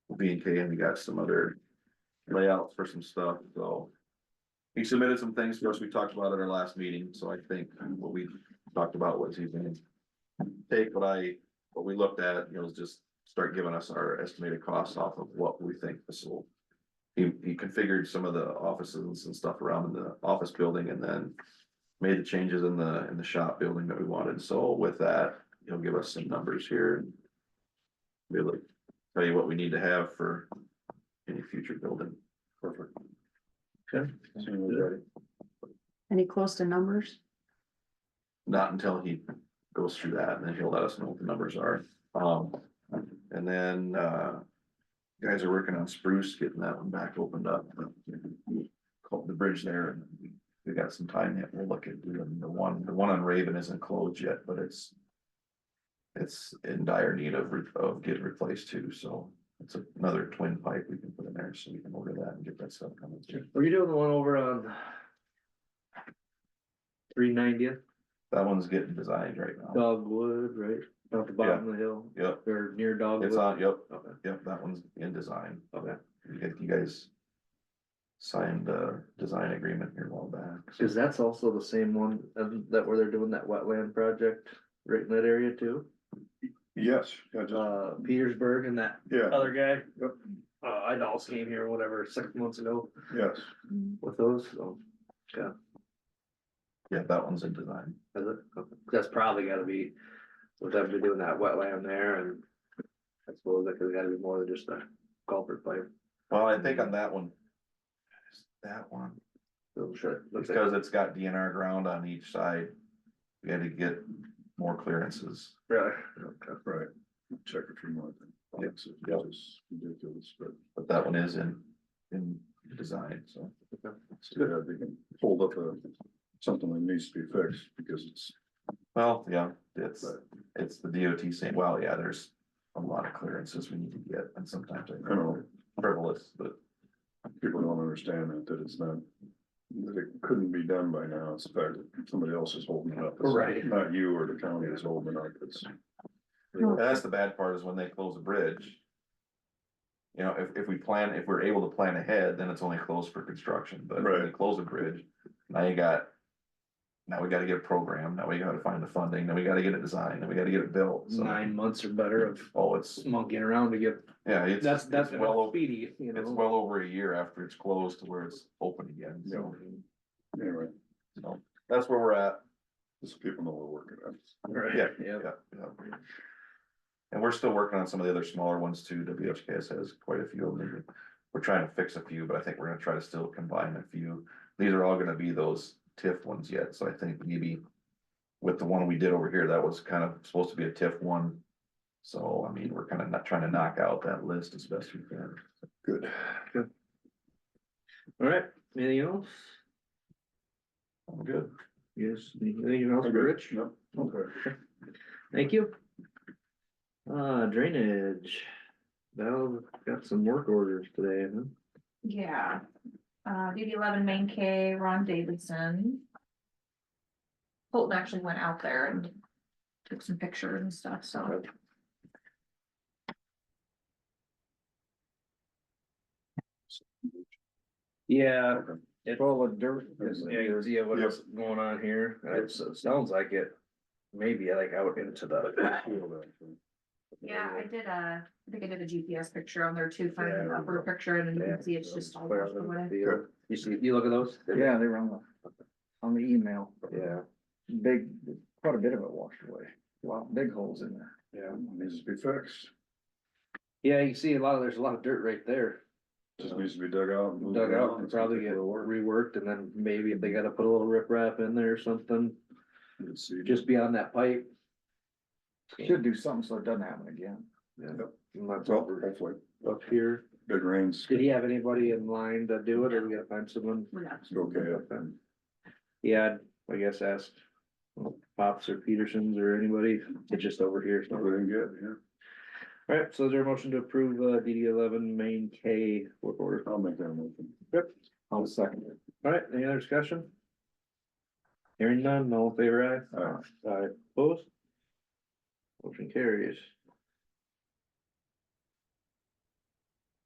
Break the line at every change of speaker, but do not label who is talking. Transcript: B and K and we got some other layouts for some stuff, so. He submitted some things for us, we talked about at our last meeting, so I think what we talked about was he's gonna take what I, what we looked at, you know, is just start giving us our estimated costs off of what we think this will. He, he configured some of the offices and stuff around in the office building and then made the changes in the, in the shop building that we wanted, so with that, he'll give us some numbers here. Be able to tell you what we need to have for any future building. Perfect. Okay.
Any close to numbers?
Not until he goes through that and then he'll let us know what the numbers are. Um, and then, uh. Guys are working on spruce, getting that one back opened up. Called the bridge there and we- we got some time yet. We'll look at doing the one, the one on Raven isn't closed yet, but it's. It's in dire need of, re- of getting replaced too, so it's another twin pipe we can put in there, so we can order that and get that stuff coming through.
Were you doing the one over on? Three ninetieth
That one's getting designed right now.
Dogwood, right, off the bottom of the hill,
Yep,
or near
it's
Dogwood.
on, yep, yep, that one's in design.
Okay.
You guys- You guys signed the design agreement here a while back. so-
Cause that's also the same one um, that where they're doing that wetland project right in that area too,
Yes, yeah, just,
uh, Petersburg and that
yeah,
other guy.
Yep.
Uh, I also came here, whatever, six months ago
yes,
with those, so
Yeah, that one's in design.
is it- that's probably gotta be. With them doing that wetland there and I suppose that could gotta be more than just a culvert pipe,
Well, I think on that one. That one, Oh,
so sure. looks like-
because it's got DNR ground on each side. We had to get more clearances.
Really?
right. Check a few more things.
Yep.
It's just ridiculous, but
But that one is in, in design, so.
yeah, they can hold up a, something that needs to be fixed because it's,
Well, yeah, it's, it's the DOT saying, well, yeah, there's a lot of clearances we need to get and sometimes I
I know,
frivolous, but.
people don't understand that, that it's not. That it couldn't be done by now, it's the fact that somebody else is holding it up. It's
Right.
Not you or the county is holding it up, it's,
And that's the bad part is when they close a bridge. You know, if, if we plan, if we're able to plan ahead, then it's only closed for construction, but when they
Right.
close a bridge, now you got. Now we gotta get a program, now we gotta find the funding, then we gotta get it designed, then we gotta get it built, so.
nine months or better of
Oh, it's,
monkeying around to get,
yeah, it's,
that's,
it's
that's
well,
well
o-
speedy, you
it's
know.
well over a year after it's closed to where it's open again, so.
anyway,
so That's where we're at,
just so people know we're working on. it.
Right,
yeah,
yeah.
yeah, yeah. And we're still working on some of the other smaller ones too. WHKS has quite a few of them. We're trying to fix a few, but I think we're gonna try to still combine a few. These are all gonna be those TIF ones yet, so I think maybe with the one we did over here, that was kind of supposed to be a TIF one. So, I mean, we're kind of not trying to knock out that list as best we can.
Good.
All right, anything else?
I'm good.
Yes, anything else,
Okay.
Rich?
Yep, okay.
Thank you. Uh, drainage. Val got some work orders today, huh?
Yeah, uh, DD eleven main K, Ron Davidson. Colton actually went out there and took some pictures and stuff, so.
Yeah,
Okay.
it's all a dirt.
it's-
Yeah, you see what's going on here, it's, it sounds like it, maybe like out into the.
Feel that, so.
Yeah, I did a, I think I did a GPS picture on there too, kind of an
Yeah.
upper picture, and you
Yeah.
can see it's just all
Where
washed
I'm gonna
away.
feel- You see, you look at those?
Yeah, they were on the, on the email,
Yeah.
big, quite a bit of it washed away, a lot, big holes in there.
Yeah, needs to be fixed,
Yeah, you see a lot of, there's a lot of dirt right there
just needs to be dug out. and moved
dug out
around.
and
It's gonna
probably
take a
get
little work.
reworked and then maybe if they gotta put a little riprap in there or something,
Let's see.
just beyond that pipe.
Should do something so it doesn't happen again.
and that's
Well,
over
hopefully,
Up here,
big rains,
did he have anybody in line to do it or we gotta find someone?
We're not-
it's okay up then.
Yeah, I'd- I guess ask Pops or Petersons or anybody, it's just over here. so.
Everything good, yeah.
Alright, so is there a motion to approve uh DD eleven main K work order?
I'll make that motion.
I'll second it.
Alright, any other discussion? Hearing none, all in favor aye?
All right,
Aye, opposed? Motion carries.